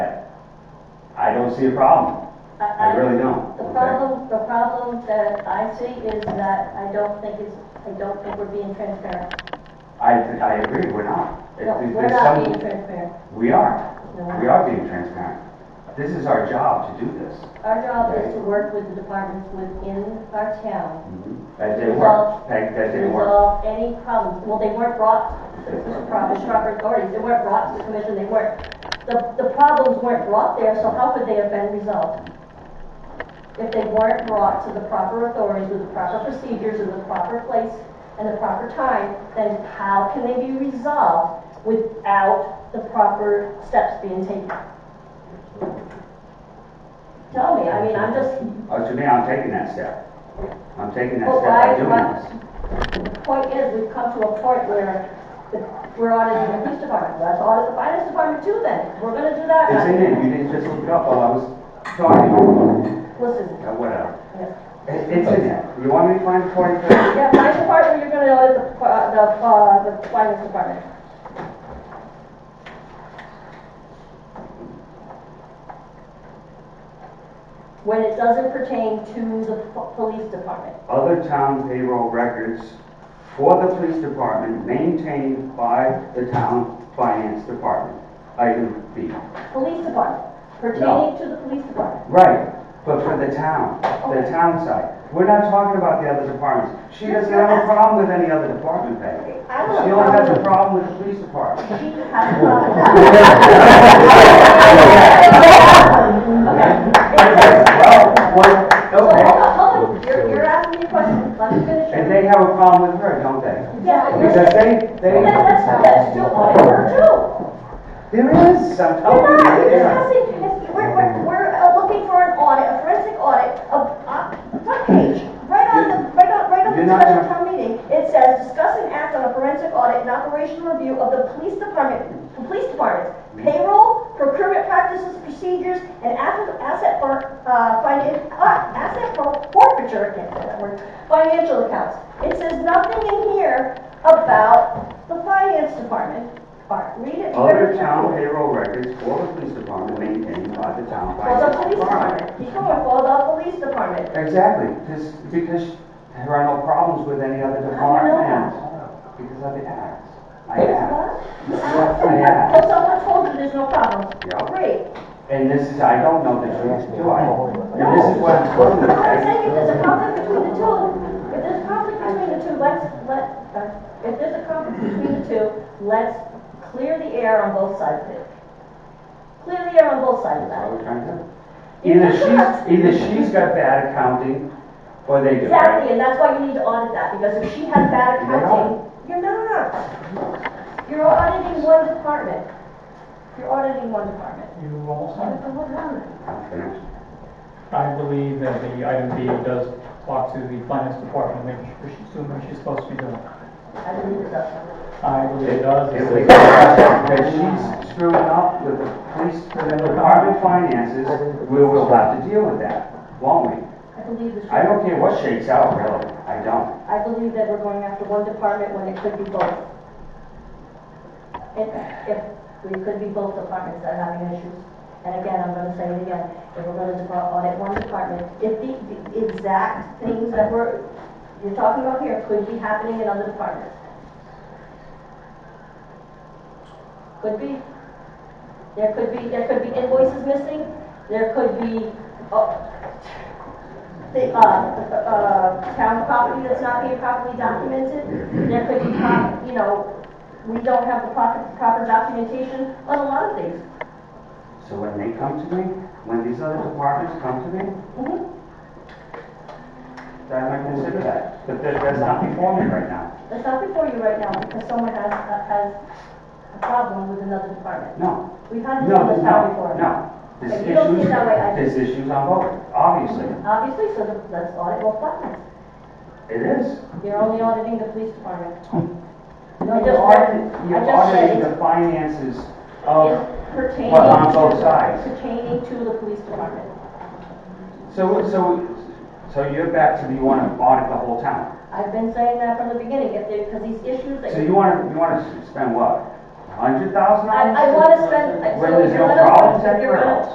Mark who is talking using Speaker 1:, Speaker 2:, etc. Speaker 1: don't see a problem. I really don't,
Speaker 2: Um, The
Speaker 1: okay?
Speaker 2: problem, the problem that I see is that I don't think it's, I don't think we're being transparent.
Speaker 1: I, I agree, we're not. If
Speaker 2: No,
Speaker 1: there's
Speaker 2: We're
Speaker 1: some-
Speaker 2: not being transparent.
Speaker 1: We are.
Speaker 2: No.
Speaker 1: We are being transparent. This is our job to do this.
Speaker 2: Our job is to work with the departments within our town.
Speaker 1: That they
Speaker 2: Resolve-
Speaker 1: work, that, that they work.
Speaker 2: Resolve any problems. Well, they weren't brought, this is proper, proper authorities, they weren't brought to the commission, they weren't. The, the problems weren't brought there, so how could they have been resolved? If they weren't brought to the proper authorities with the proper procedures in the proper place and the proper time, then how can they be resolved without the proper steps being taken? Tell me, I mean, I'm just
Speaker 1: Uh, to me, I'm taking that step. I'm taking that
Speaker 2: Well,
Speaker 1: step by
Speaker 2: why- why-
Speaker 1: doing this.
Speaker 2: Point is, we've come to a point where the- we're auditing the police department, let's audit the finance department too then, we're gonna do that.
Speaker 1: It's in there, you didn't just look it up while I was talking,
Speaker 2: Listen,
Speaker 1: Uh, whatever.
Speaker 2: yeah.
Speaker 1: It- It's in there. You want me to find forty pages?
Speaker 2: yeah, finance department, you're gonna audit the, uh, the, uh, the finance department. When it doesn't pertain to the po- police department.
Speaker 1: Other town payroll records for the police department maintained by the town finance department. Item B.
Speaker 2: Police department, pertaining to the police department.
Speaker 1: Right, but for the town, the town side. We're not talking about the other departments. She doesn't have a problem with any other department, Peg.
Speaker 2: I don't
Speaker 1: She
Speaker 2: know.
Speaker 1: only has a problem with the police department.
Speaker 2: She has a problem.
Speaker 1: Well, well,
Speaker 2: Hold
Speaker 1: okay.
Speaker 2: on, hold on. You're, you're asking me a question. Let me finish.
Speaker 1: And they have a problem with her, don't they?
Speaker 2: Yeah, but you're
Speaker 1: Because
Speaker 2: saying.
Speaker 1: they,
Speaker 2: Then that's, that's true.
Speaker 1: they,
Speaker 2: We're true.
Speaker 1: there is, I'm
Speaker 2: We're
Speaker 1: telling
Speaker 2: not,
Speaker 1: you,
Speaker 2: we're
Speaker 1: there is.
Speaker 2: discussing, it's- we're, we're, we're uh, looking for an audit, a forensic audit of, uh, front page. Right on the, right on, right on the
Speaker 1: You're not
Speaker 2: special
Speaker 1: gonna-
Speaker 2: town meeting, it says, discuss and act on a forensic audit and operational review of the police department, police departments, payroll, procurement practices, procedures, and asset, asset for, uh, finan, uh, asset for forfeiture, I can't say that word, financial accounts. It says nothing in here about the finance department part. Read it very
Speaker 1: Other
Speaker 2: carefully.
Speaker 1: town payroll records for the police department maintained by the town
Speaker 2: For the
Speaker 1: finance
Speaker 2: police
Speaker 1: department.
Speaker 2: department, keep going, for the police department.
Speaker 1: Exactly, because, because there are no problems with any other
Speaker 2: How do you know
Speaker 1: department. Because I've asked. I asked.
Speaker 2: Well,
Speaker 1: I asked.
Speaker 2: someone told you there's no problem.
Speaker 1: Yeah.
Speaker 2: Great.
Speaker 1: And this is, I don't know the truth, do I? And this is what I'm
Speaker 2: I'm
Speaker 1: quoting.
Speaker 2: not saying if
Speaker 1: okay?
Speaker 2: there's a conflict between the two, if there's a conflict between the two, let's, let, uh, if there's a conflict between the two, let's clear the air on both sides of it. Clear the air on both sides of
Speaker 1: That's what we're
Speaker 2: that.
Speaker 1: trying to do.
Speaker 2: You
Speaker 1: Either
Speaker 2: just have-
Speaker 1: she's, either she's got bad accounting, or they do, right?
Speaker 2: Exactly, and that's why you need to audit that, because if she has bad accounting, you're not. You're auditing one department. You're auditing one department.
Speaker 3: You also,
Speaker 2: Well,
Speaker 1: I'm finished.
Speaker 3: I believe that the item B does talk to the finance department, making sure she's doing what she's supposed to be doing.
Speaker 2: I believe it does.
Speaker 3: I believe it does.
Speaker 1: If we go back up, Because she's screwing up with the police, the department finances, we will have to deal with that, won't we?
Speaker 2: I believe that she-
Speaker 1: I don't care what shakes out, really, I don't.
Speaker 2: I believe that we're going after one department when it could be both. If, if, we could be both departments that are having issues. And again, I'm gonna say it again, if we're gonna depart, audit one department, if the, the exact things that we're, you're talking about here could be happening in other departments. Could be. There could be, there could be invoices missing, there could be, uh, the, uh, uh, town property that's not being properly documented. There could be, prop- you know, we don't have the proper, proper documentation on a lot of things.
Speaker 1: So when they come to me, when these other departments come to me,
Speaker 2: Mhm.
Speaker 1: then I might consider that. But that, that's not before me right now.
Speaker 2: That's not before you right now because someone has, uh, has a problem with another department.
Speaker 1: No,
Speaker 2: We've had
Speaker 1: no,
Speaker 2: this
Speaker 1: no,
Speaker 2: in this town before.
Speaker 1: no. There's
Speaker 2: If you don't see it that way, I-
Speaker 1: issues, there's issues on both, obviously.
Speaker 2: Obviously, so the- let's audit both departments.
Speaker 1: It is.
Speaker 2: You're only auditing the police department.
Speaker 1: No,
Speaker 2: I
Speaker 1: you're
Speaker 2: just
Speaker 1: auditing,
Speaker 2: read- I
Speaker 1: you're
Speaker 2: just read
Speaker 1: auditing
Speaker 2: it.
Speaker 1: the finances of,
Speaker 2: It's pertaining
Speaker 1: well, on
Speaker 2: to-
Speaker 1: both sides.
Speaker 2: Pertaining to the police department.
Speaker 1: so, so, so you're back to, you wanna audit the whole town?
Speaker 2: I've been saying that from the beginning, if there, because these issues that.
Speaker 1: So you wanna, you wanna spend what? A hundred thousand
Speaker 2: I,
Speaker 1: dollars?
Speaker 2: I wanna spend, I- so
Speaker 1: Where there's
Speaker 2: you're
Speaker 1: no
Speaker 2: gonna,
Speaker 1: problems
Speaker 2: you're